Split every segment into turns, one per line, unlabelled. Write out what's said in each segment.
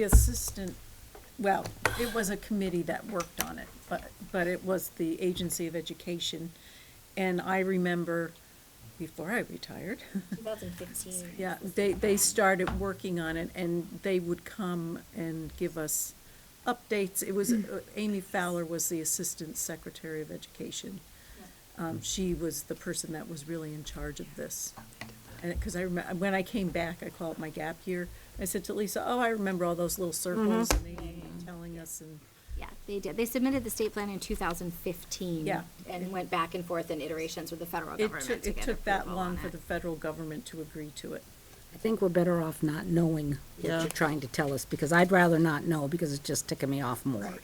The assistant, well, it was a committee that worked on it, but, but it was the Agency of Education. And I remember, before I retired,
2015.
yeah, they, they started working on it and they would come and give us updates. It was, uh, Amy Fowler was the Assistant Secretary of Education. Um, she was the person that was really in charge of this. And, because I remember, when I came back, I call it my gap year, I said to Lisa, oh, I remember all those little circles and they were
Mm-hmm.
telling us and,
Yeah, they did. They submitted the state plan in 2015.
Yeah.
And went back and forth in iterations with the federal
it
government to
took, it
get
took that
approval on
long for
it.
the federal government to agree to it.
I think we're better off not knowing what
Yeah.
you're trying to tell us, because I'd rather not know, because it's just ticking me off more.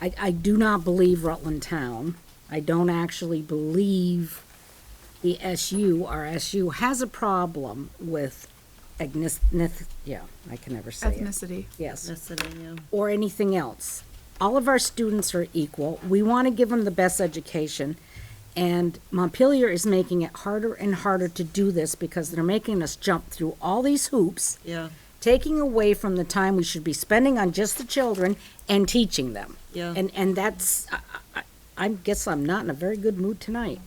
I, I do not believe Rutland Town. I don't actually believe the SU, our SU has a problem with agnes, nith- yeah, I can never say it.
ethnicity.
Yes
Listening,
or anything else. All of our students are equal. We want to give them the best education. And Montpelier is making it harder and harder to do this because they're making us jump through all these hoops,
yeah,
taking away from the time we should be spending on just the children and teaching them.
Yeah.
And, and that's, I, I, I guess I'm not in a very good mood tonight.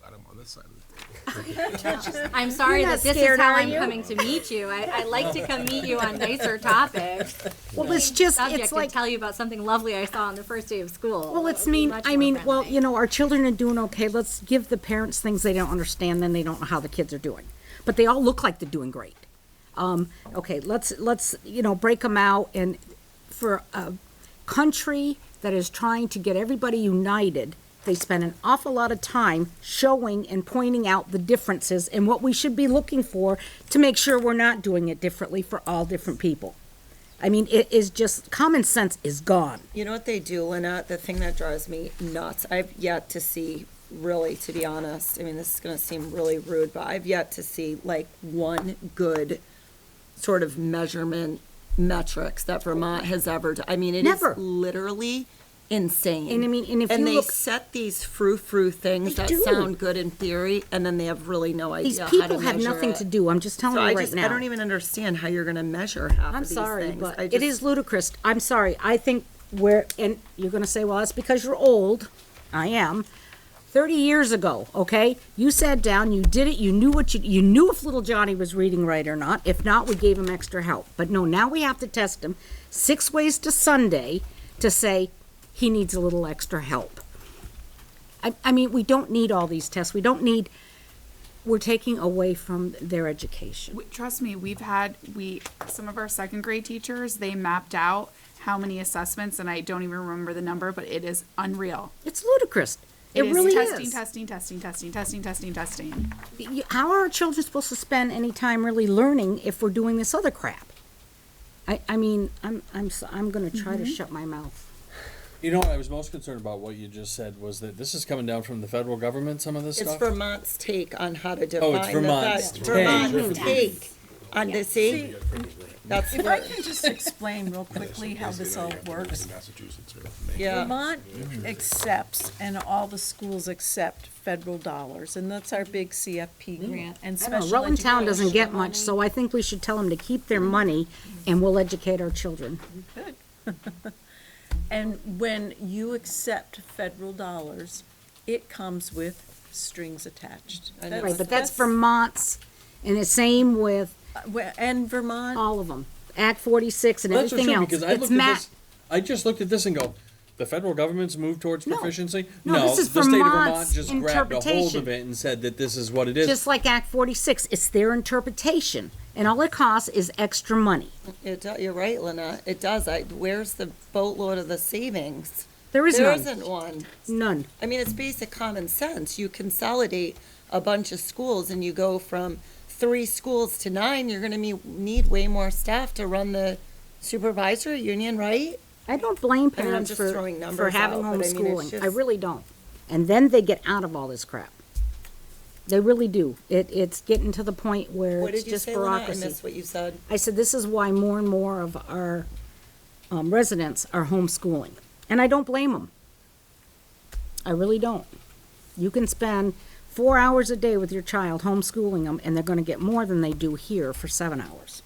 Glad I'm on this side of the table.
I'm sorry
You're
that
not
this is
scared,
how
are
I'm
you?
coming to meet you. I, I like to come meet you on nicer topics.
Well, it's just,
Subject
it's
and
like.
tell you about something lovely I saw on the first day of school.
Well,
It
it's
would be
mean,
much
I
more
mean, well,
friendly.
you know, our children are doing okay. Let's give the parents things they don't understand, then they don't know how the kids are doing. But they all look like they're doing great. Um, okay, let's, let's, you know, break them out and for a country that is trying to get everybody united, they spend an awful lot of time showing and pointing out the differences and what we should be looking for to make sure we're not doing it differently for all different people. I mean, it is just, common sense is gone.
You know what they do, Lynette? The thing that drives me nuts, I've yet to see, really, to be honest, I mean, this is gonna seem really rude, but I've yet to see like one good sort of measurement metrics that Vermont has ever, d- I mean, it is
Never.
literally insane.
And I mean, and if you
they
look-
set these frou-frou things
They
that
do.
sound good in theory, and then they have really no
These
idea how to
people have
measure
nothing
it.
to do, I'm just telling
So
you
I
right
just,
now.
I don't even understand how you're gonna measure
I'm
half of these things.
sorry, but
I
it
just-
is ludicrous. I'm sorry. I think we're, and you're gonna say, well, that's because you're old. I am. Thirty years ago, okay, you sat down, you did it, you knew what you, you knew if little Johnny was reading right or not. If not, we gave him extra help. But no, now we have to test him six ways to Sunday to say he needs a little extra help. I, I mean, we don't need all these tests. We don't need, we're taking away from their education.
We- Trust me, we've had, we, some of our second grade teachers, they mapped out how many assessments, and I don't even remember the number, but it is unreal.
It's ludicrous. It,
is
really
testing,
is.
Testing, testing, testing, testing, testing, testing.
Y- How are our children supposed to spend any time really learning if we're doing this other crap? I, I mean, I'm, I'm, so- I'm gonna try to
Mm-hmm.
shut my mouth.
You know what I was most concerned about what you just said was that this is coming down from the federal government, some of this
It's
stuff. Oh,
Vermont's take on how to define the
Vermont's
fact-
take.
Vermont's take on the, see? That's
If I
what,
can just explain real quickly how this all works.
Massachusetts or Maine.
yeah,
Vermont accepts, and all the schools accept federal dollars, and that's our big CFP grant and
Mm. I don't know,
special
Rutland Town doesn't get
education
much, so I think we should tell them to keep
Mm-hmm.
their money and we'll educate our children.
money. And when you accept federal dollars, it comes with strings attached.
Right, but that's Vermont's and the same with
Where- And Vermont,
all of them. Act forty-six and
Well, that's for
everything
sure,
else.
because I
It's
looked at
ma-
this, I just looked at this and go, the federal government's moved towards
No.
proficiency?
No,
No,
this is
the state of Vermont
Vermont's
just grabbed a hold
interpretation.
of it and said that this is what it is.
Just like Act forty-six, it's their interpretation and all it costs is extra money.
it, do- you're right, Lynette, it does, I, where's the boatload of the savings?
There is
There
none,
isn't one.
none.
I mean, it's basic common sense, you consolidate a bunch of schools and you go from three schools to nine, you're gonna me, need way more staff to run the supervisory union, right?
I don't blame
I mean, I'm
parents
just
for,
throwing
for
numbers
having
out, but I mean, it's
homeschooling. I
just-
really don't. And then they get out of all this crap. They really do. It, it's getting to the point where
What
it's
did you
just
say, Lynette? I
bureaucracy.
missed what you said.
I said, this is why more and more of our um, residents are homeschooling. And I don't blame them. I really don't. You can spend four hours a day with your child homeschooling them, and they're gonna get more than they do here for seven hours.